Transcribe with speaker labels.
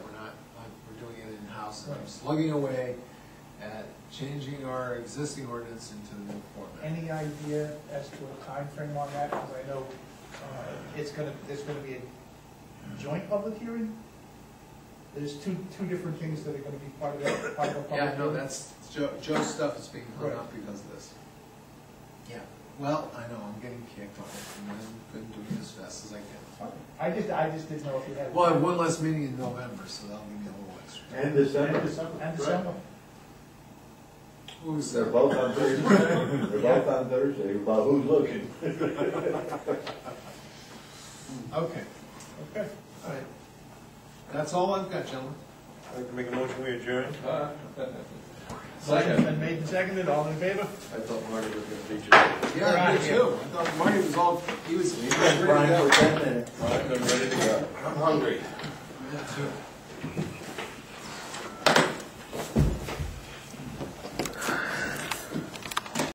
Speaker 1: process of slugging away at changing our existing ordinance into the new format.
Speaker 2: Any idea as to a time frame on that? Because I know uh, it's gonna, there's gonna be a joint public hearing? There's two, two different things that are gonna be part of that, part of the public hearing.
Speaker 1: Yeah, no, that's, Joe, Joe's stuff is being hung up because of this. Yeah, well, I know, I'm getting kicked on it, and I've been doing it as fast as I can.
Speaker 2: I just, I just didn't know if you had.
Speaker 1: Well, I have one less meeting in November, so that'll give me a little extra.
Speaker 3: And December.
Speaker 2: And December.
Speaker 1: Who's
Speaker 3: They're both on Thursday. They're both on Thursday, about who's looking.
Speaker 1: Okay,
Speaker 2: Okay.
Speaker 1: all right. That's all I've got, gentlemen.
Speaker 4: I'd like to make a motion, we adjourn.
Speaker 2: Motion's been made and seconded, all in favor?
Speaker 4: I thought Marty was gonna beat you.
Speaker 2: We're
Speaker 1: Yeah,
Speaker 2: outta
Speaker 1: me
Speaker 2: here.
Speaker 1: too. I thought Marty was all, he was, he was ready to
Speaker 3: Brian,
Speaker 1: go.
Speaker 3: for ten minutes.
Speaker 4: I'm ready to go. I'm hungry.
Speaker 1: Me too.